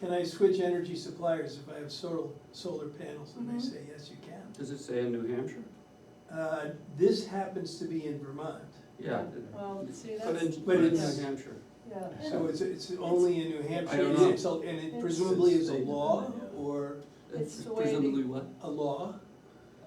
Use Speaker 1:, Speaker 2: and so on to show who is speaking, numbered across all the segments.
Speaker 1: Can I switch energy suppliers if I have solar, solar panels? And
Speaker 2: Mhm.
Speaker 1: they say, yes, you can.
Speaker 3: Does it say in New Hampshire?
Speaker 1: Uh, This happens to be in Vermont,
Speaker 3: Yeah.
Speaker 2: Well, Oh, see,
Speaker 3: But
Speaker 2: that's,
Speaker 3: in,
Speaker 1: but
Speaker 3: but in
Speaker 1: it's-
Speaker 3: New Hampshire.
Speaker 2: yeah.
Speaker 1: so it's, it's only in New Hampshire.
Speaker 3: don't
Speaker 1: and
Speaker 3: know.
Speaker 1: it's a- And it presumably is a law or
Speaker 2: It's the way they-
Speaker 3: Presumably what?
Speaker 1: a law.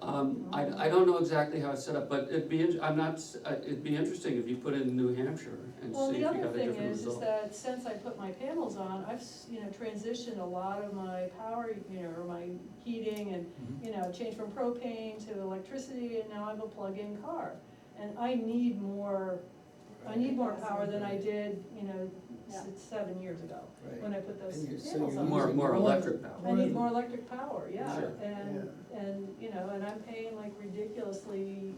Speaker 3: Um, I, I don't know exactly how it's set up, but it'd be, in- I'm not, s- uh, it'd be interesting if you put in New Hampshire and
Speaker 2: Well, the
Speaker 3: see if you
Speaker 2: other
Speaker 3: got a
Speaker 2: thing
Speaker 3: different
Speaker 2: is, is
Speaker 3: result.
Speaker 2: that since I put my panels on, I've, s- you know, transitioned a lot of my power, you know, or my heating and,
Speaker 3: Mhm.
Speaker 2: you know, changed from propane to electricity, and now I'm a plug-in car. And I need more, I need more power than I did, you know, s- seven years ago, when I put those
Speaker 4: And you're- so
Speaker 2: panels
Speaker 4: you're
Speaker 2: on.
Speaker 3: More, more electric
Speaker 2: I
Speaker 3: power.
Speaker 2: need more electric power, yeah,
Speaker 3: Sure.
Speaker 2: and, and, you know, and I'm paying like ridiculously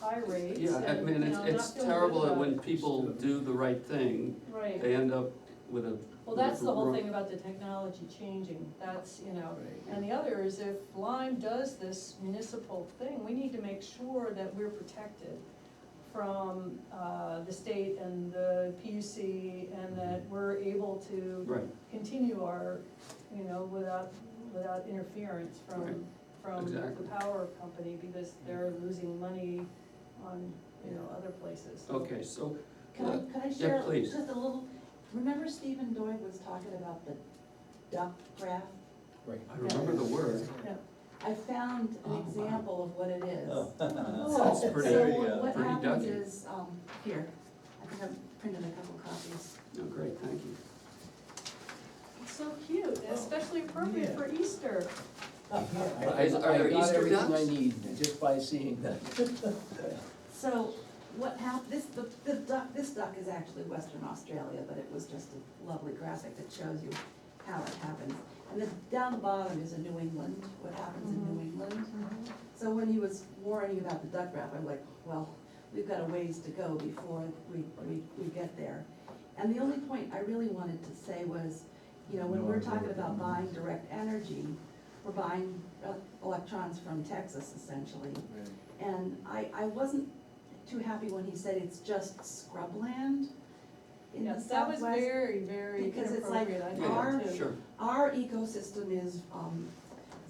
Speaker 2: high rates.
Speaker 3: Yeah, I
Speaker 2: and,
Speaker 3: mean,
Speaker 2: you
Speaker 3: it's,
Speaker 2: know, I'm
Speaker 3: it's
Speaker 2: not feeling good
Speaker 3: terrible that
Speaker 2: about
Speaker 3: when
Speaker 2: it.
Speaker 3: people do the right thing,
Speaker 2: Right,
Speaker 3: they end up with a.
Speaker 2: well,
Speaker 3: with a
Speaker 2: that's the whole
Speaker 3: wrong-
Speaker 2: thing about the technology changing, that's, you know, and the other is if Lyme does this municipal thing, we need to make sure that we're protected from, uh, the state and the PUC, and that
Speaker 3: Mm-hmm.
Speaker 2: we're able to
Speaker 3: Right,
Speaker 2: continue our, you know, without, without interference
Speaker 3: Right.
Speaker 2: from, from
Speaker 3: Exactly.
Speaker 2: the power company, because they're losing money on, you know, other places.
Speaker 3: okay, so,
Speaker 5: Can I, can I
Speaker 3: Yeah,
Speaker 5: share
Speaker 3: please.
Speaker 5: just a little, remember Stephen Doig was talking about the duck graph?
Speaker 4: Right.
Speaker 3: I remember the word.
Speaker 2: Yeah.
Speaker 5: I found
Speaker 3: Oh,
Speaker 5: an
Speaker 3: wow. Oh.
Speaker 5: example of what it is. Oh,
Speaker 2: That's
Speaker 5: So-
Speaker 3: pretty-
Speaker 5: So what- what
Speaker 3: pretty
Speaker 5: happens
Speaker 3: ducky.
Speaker 5: is, um, here, I think I've printed a couple copies.
Speaker 3: Oh, great, thank you.
Speaker 2: It's so cute, and especially appropriate
Speaker 4: Yeah.
Speaker 2: for Easter.
Speaker 4: Yeah,
Speaker 3: Are- are there
Speaker 4: I got
Speaker 3: Easter
Speaker 4: everything I
Speaker 3: ducks?
Speaker 4: need just by seeing that.
Speaker 5: So what hap, this, the, the duck, this duck is actually Western Australia, but it was just a lovely graphic that shows you how it happens. And then down the bottom is a New England, what happens in New
Speaker 3: Mm-hmm.
Speaker 5: England. So when he was warning you about the duck rap, I'm like, well, we've got a ways to go before we, we, we get there. And the only point I really wanted to say was, you know, when we're talking about buying direct energy, we're buying uh, electrons from Texas essentially. And I, I wasn't too happy when he said it's just scrubland in the
Speaker 2: Yes, that was
Speaker 5: southwest.
Speaker 2: very, very
Speaker 5: because it's like
Speaker 2: inappropriate, I
Speaker 5: our-
Speaker 2: thought, too.
Speaker 3: Sure,
Speaker 5: Our ecosystem is, um,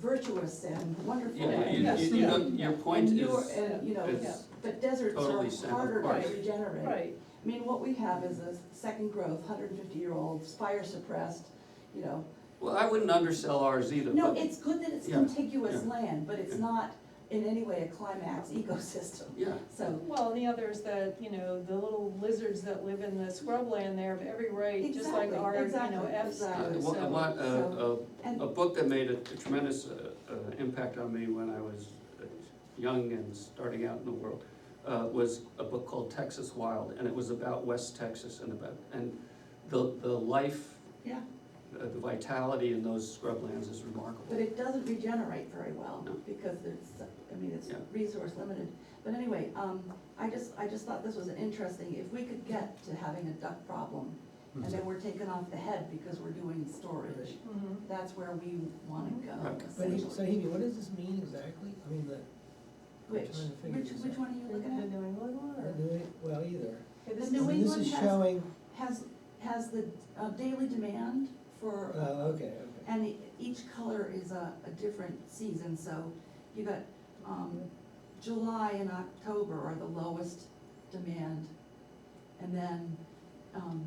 Speaker 5: virtuous and wonderful.
Speaker 3: yeah,
Speaker 5: and-
Speaker 3: you, you- you know, your point
Speaker 5: And
Speaker 3: is,
Speaker 5: you're, and, you know,
Speaker 3: is
Speaker 5: But deserts
Speaker 3: Totally
Speaker 5: are
Speaker 3: separate
Speaker 5: harder
Speaker 3: parts.
Speaker 5: to regenerate.
Speaker 2: Right,
Speaker 5: I mean, what we have is a second growth, hundred and fifty year old, fire suppressed, you know.
Speaker 3: Well, I wouldn't undersell ours either,
Speaker 5: No,
Speaker 3: but,
Speaker 5: it's good that it's
Speaker 3: Yeah,
Speaker 5: contiguous
Speaker 3: yeah.
Speaker 5: land, but it's
Speaker 3: Yeah.
Speaker 5: not in any way a climax ecosystem,
Speaker 3: yeah,
Speaker 5: so.
Speaker 2: well, and the other is that, you know, the little lizards that live in the scrubland there of every rate, just like
Speaker 5: Exactly,
Speaker 2: our, you know,
Speaker 5: exactly,
Speaker 2: F's.
Speaker 3: I
Speaker 5: exactly.
Speaker 3: wa- I
Speaker 2: so-
Speaker 3: want a,
Speaker 5: so-
Speaker 3: a,
Speaker 5: And,
Speaker 3: uh, a book that made a tremendous, uh, uh, impact on me when I was uh, young and starting out in the world, uh, was a book called Texas Wild, and it was about West Texas and about, and the, the life,
Speaker 5: yeah,
Speaker 3: uh, the vitality in those scrublands is
Speaker 5: but
Speaker 3: remarkable.
Speaker 5: it doesn't regenerate very well,
Speaker 3: No.
Speaker 5: because it's, I mean, it's
Speaker 3: Yeah.
Speaker 5: resource limited. But anyway, um, I just, I just thought this was an interesting, if we could get to having a duck problem, and
Speaker 3: Hmm.
Speaker 5: then we're taken off the head because we're doing storage,
Speaker 2: Mhm.
Speaker 5: that's where we wanna go,
Speaker 3: Right.
Speaker 4: But he,
Speaker 5: essentially.
Speaker 4: so Hebe, what does this mean exactly? I mean, the,
Speaker 5: Which,
Speaker 4: trying to figure
Speaker 5: which,
Speaker 4: this
Speaker 5: which
Speaker 4: out.
Speaker 5: one are you
Speaker 2: The
Speaker 5: looking at?
Speaker 2: New England one,
Speaker 4: the
Speaker 2: or?
Speaker 4: New, well, either.
Speaker 2: Okay, this
Speaker 5: The
Speaker 2: is-
Speaker 5: New
Speaker 4: I mean,
Speaker 5: England
Speaker 4: This is
Speaker 5: has-
Speaker 4: showing,
Speaker 5: Has, has the uh, daily demand
Speaker 4: oh,
Speaker 5: for,
Speaker 4: okay, okay.
Speaker 5: and e- each color is a, a different season, so you got, um, July and October are the lowest demand. And then, um,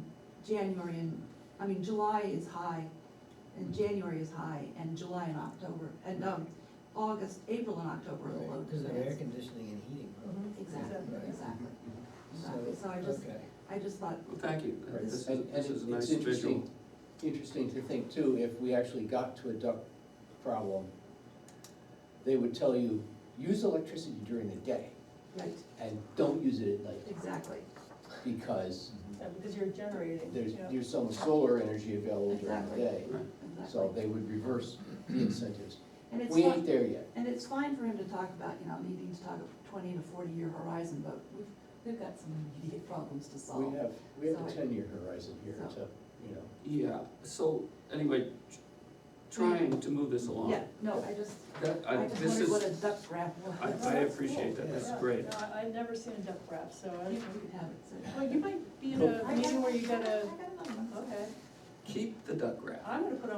Speaker 5: January and, I mean, July is high,
Speaker 4: Mm-hmm.
Speaker 5: and January is high, and July and October, and, um, August, April and October are the low
Speaker 4: Because of air
Speaker 5: demands.
Speaker 4: conditioning and heating, probably.
Speaker 2: Mhm.
Speaker 5: Exactly,
Speaker 4: Right.
Speaker 5: exactly, exactly,
Speaker 4: so,
Speaker 5: so Mm-hmm. I just,
Speaker 4: okay.
Speaker 5: I just thought,
Speaker 3: Well, thank you, Uh,
Speaker 4: Right.
Speaker 3: this is,
Speaker 6: And, and
Speaker 3: this is a nice
Speaker 6: it's
Speaker 3: visual.
Speaker 6: interesting, interesting to think too, if we actually got to a duck problem, they would tell you, use electricity during the day
Speaker 5: right,
Speaker 6: and don't use it at night,
Speaker 5: exactly,
Speaker 6: because
Speaker 2: Yeah, Uh, because you're generating,
Speaker 6: there's,
Speaker 2: yeah.
Speaker 6: there's some solar energy available during the
Speaker 5: Exactly.
Speaker 6: day.
Speaker 3: Right.
Speaker 6: So
Speaker 5: exactly.
Speaker 6: they would reverse the incentives.
Speaker 5: And it's
Speaker 6: We ain't
Speaker 5: fine,
Speaker 6: there yet.
Speaker 5: and it's fine for him to talk about, you know, needing to talk of twenty to forty year horizon, but we've, we've got some immediate problems to solve.
Speaker 6: We have, we have a
Speaker 5: So-
Speaker 6: ten-year horizon here
Speaker 5: so-
Speaker 6: to, you know.
Speaker 3: Yeah, so, anyway, tr- trying to move this along.
Speaker 5: Yeah, no, I just,
Speaker 3: That, I,
Speaker 5: I just
Speaker 3: this
Speaker 5: wondered
Speaker 3: is,
Speaker 5: what a duck graph was.
Speaker 3: I, I appreciate that, that's
Speaker 2: Yeah,
Speaker 3: great.
Speaker 2: No, I- I've never seen a duck graph, so
Speaker 5: You
Speaker 2: I,
Speaker 5: could have it, so.
Speaker 2: well, you might be in
Speaker 5: I
Speaker 2: a
Speaker 5: got-
Speaker 2: meeting where you
Speaker 5: I got
Speaker 2: gotta,
Speaker 5: it on my-
Speaker 2: okay,
Speaker 3: Keep the duck graph.
Speaker 2: I'm gonna put on